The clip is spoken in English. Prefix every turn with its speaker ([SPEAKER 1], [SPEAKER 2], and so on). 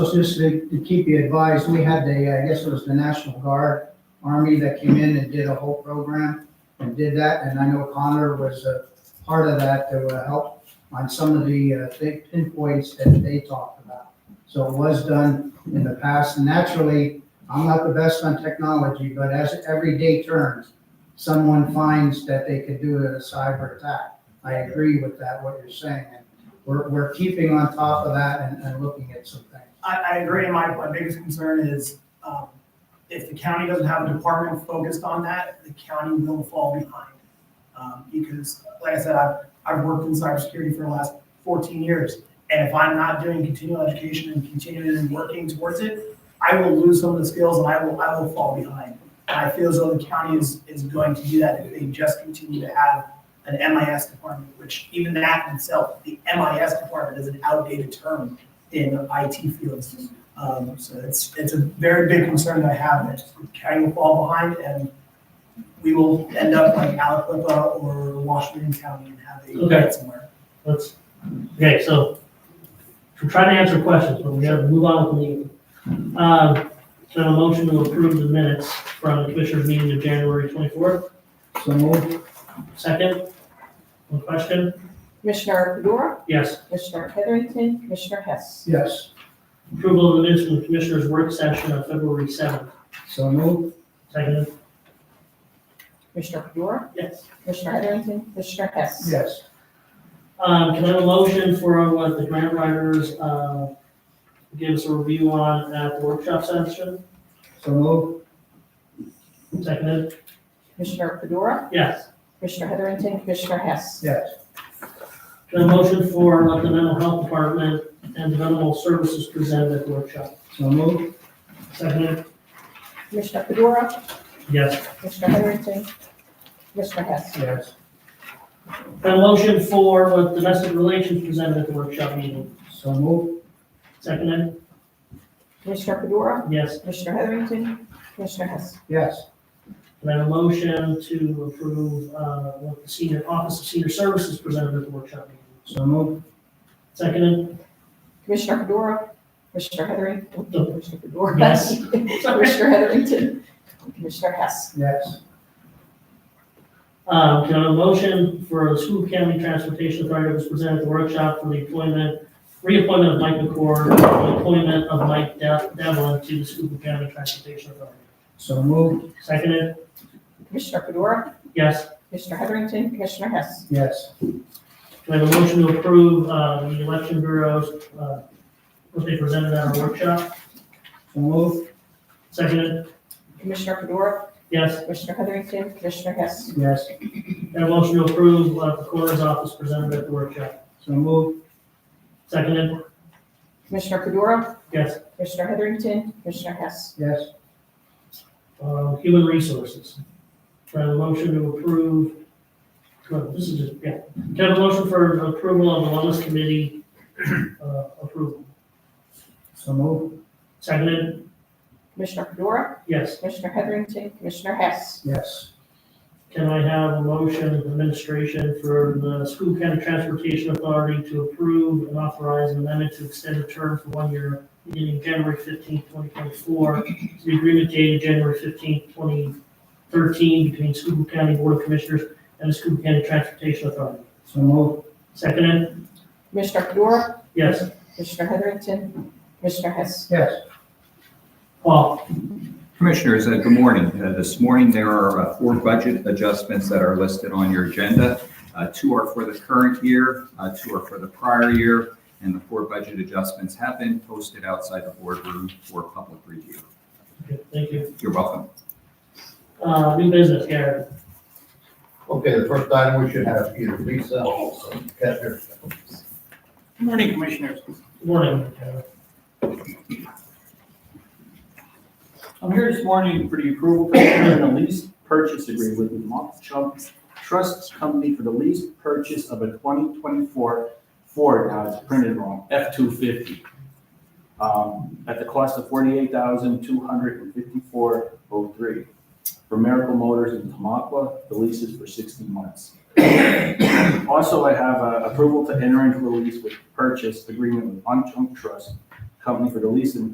[SPEAKER 1] was Just to to keep you advised, we had the, I guess it was the National Guard Army that came in and did a whole program and did that, and I know Connor was a part of that to uh, help on some of the uh, big pinpoints that they talked about. So it was done in the past. Naturally, I'm not the best on technology, but as every day turns, someone finds that they could do a cyber attack. I agree with that, what you're saying, and we're, we're keeping on top of that and, and looking at some things.
[SPEAKER 2] I, I agree, and my, my biggest concern is, um, if the county doesn't have a department focused on that, the county will fall behind. Um, because, like I said, I've, I've worked in cybersecurity for the last fourteen years, and if I'm not doing continual education and continuing and working towards it, I will lose some of the skills and I will, I will fall behind. And I feel as though the county is, is going to do that if they just continue to have an MIS department, which even that in itself, the MIS department is an outdated term in IT fields. Um, so it's, it's a very big concern that I have that the county will fall behind and we will end up like Alacqua or Washington County and have a
[SPEAKER 3] Okay.
[SPEAKER 2] somewhere.
[SPEAKER 3] Let's, okay, so, we're trying to answer questions, but we gotta move on with the meeting. Uh, so a motion to approve the minutes from the commissioners meeting of January twenty-fourth,
[SPEAKER 1] So moved,
[SPEAKER 3] second. One question?
[SPEAKER 4] Commissioner Fedora,
[SPEAKER 3] Yes.
[SPEAKER 4] Commissioner Heatherington, Commissioner Hess.
[SPEAKER 1] yes,
[SPEAKER 3] Approval of the minutes from the commissioners' work session on February seventh,
[SPEAKER 1] so moved,
[SPEAKER 3] second.
[SPEAKER 4] Commissioner Fedora,
[SPEAKER 3] Yes.
[SPEAKER 4] Commissioner Heatherington, Commissioner Hess.
[SPEAKER 1] yes,
[SPEAKER 3] Um, can I have a motion for what the grant writers, uh, give us a review on at the workshop session,
[SPEAKER 1] so moved,
[SPEAKER 3] second?
[SPEAKER 4] Commissioner Fedora,
[SPEAKER 3] Yes.
[SPEAKER 4] Commissioner Heatherington, Commissioner Hess.
[SPEAKER 1] yes,
[SPEAKER 3] Got a motion for what the mental health department and developmental services presented at the workshop.
[SPEAKER 1] so moved,
[SPEAKER 3] Second?
[SPEAKER 4] Commissioner Fedora,
[SPEAKER 3] Yes.
[SPEAKER 4] Commissioner Heatherington, Commissioner Hess.
[SPEAKER 1] yes,
[SPEAKER 3] Got a motion for what domestic relations presented at the workshop meeting.
[SPEAKER 1] so moved,
[SPEAKER 3] Second?
[SPEAKER 4] Commissioner Fedora,
[SPEAKER 3] Yes.
[SPEAKER 4] Commissioner Heatherington, Commissioner Hess.
[SPEAKER 1] yes,
[SPEAKER 3] And I have a motion to approve, uh, what the senior, Office of Senior Services presented at the workshop meeting.
[SPEAKER 1] so moved,
[SPEAKER 3] Second?
[SPEAKER 4] Commissioner Fedora, Commissioner Heatherington, Commissioner Fedora.
[SPEAKER 3] Yes.
[SPEAKER 4] Commissioner Heatherington, Commissioner Hess.
[SPEAKER 1] yes,
[SPEAKER 3] Uh, can I have a motion for the school county transportation authority that was presented at the workshop for the appointment, reappointment of Mike McCord, and the appointment of Mike Dev- Devlin to the school county transportation authority.
[SPEAKER 1] so moved,
[SPEAKER 3] Seconded,
[SPEAKER 4] Commissioner Fedora,
[SPEAKER 3] yes.
[SPEAKER 4] Commissioner Heatherington, Commissioner Hess.
[SPEAKER 1] yes,
[SPEAKER 3] Do I have a motion to approve, uh, the election bureaus, uh, what they presented at our workshop?
[SPEAKER 1] so moved,
[SPEAKER 3] Seconded,
[SPEAKER 4] Commissioner Fedora,
[SPEAKER 3] yes.
[SPEAKER 4] Commissioner Heatherington, Commissioner Hess.
[SPEAKER 1] yes,
[SPEAKER 3] Do I have a motion to approve, uh, the coroner's office presented at the workshop?
[SPEAKER 1] so moved,
[SPEAKER 3] Seconded,
[SPEAKER 4] Commissioner Fedora,
[SPEAKER 3] yes.
[SPEAKER 4] Commissioner Heatherington, Commissioner Hess.
[SPEAKER 1] yes,
[SPEAKER 3] Uh, human resources. Do I have a motion to approve? well, This is just, yeah. Do I have a motion for approval of the wellness committee, uh, approval?
[SPEAKER 1] so moved,
[SPEAKER 3] Seconded,
[SPEAKER 4] Commissioner Fedora,
[SPEAKER 3] yes.
[SPEAKER 4] Commissioner Heatherington, Commissioner Hess.
[SPEAKER 1] yes,
[SPEAKER 3] Can I have a motion of administration for the school county transportation authority to approve and authorize an amendment to extend the term for one year beginning January fifteenth, twenty twenty-four, to the agreement dated January fifteenth, twenty thirteen, between Schuylkill County Board of Commissioners and the Schuylkill County Transportation Authority?
[SPEAKER 1] so moved,
[SPEAKER 3] Seconded?
[SPEAKER 4] Commissioner Fedora,
[SPEAKER 3] Yes.
[SPEAKER 4] Commissioner Heatherington, Commissioner Hess.
[SPEAKER 1] yes,
[SPEAKER 3] Paul?
[SPEAKER 5] Commissioners, uh, good morning. Uh, This morning, there are uh, four budget adjustments that are listed on your agenda. Uh, Two are for the current year, uh, two are for the prior year, and the four budget adjustments have been posted outside the boardroom for public review.
[SPEAKER 3] Okay, Thank you.
[SPEAKER 5] You're welcome.
[SPEAKER 3] Uh, new business, Gary?
[SPEAKER 6] Okay, the first item we should have either Lisa or Kester.
[SPEAKER 7] Good Morning, Commissioners.
[SPEAKER 3] Good Morning. Gary.
[SPEAKER 7] I'm here this morning for the approval to enter a lease purchase agreement with Vermont Chunks Trust Company for the lease purchase of a 2024 Ford, now it's printed wrong, F-250, um, at the cost of $48,254.03 for Miracle Motors in Tamaqua. The lease is for 60 months. Also, I have uh, approval to enter into a lease with purchase agreement with Vermont Chunk Trust Company for the lease and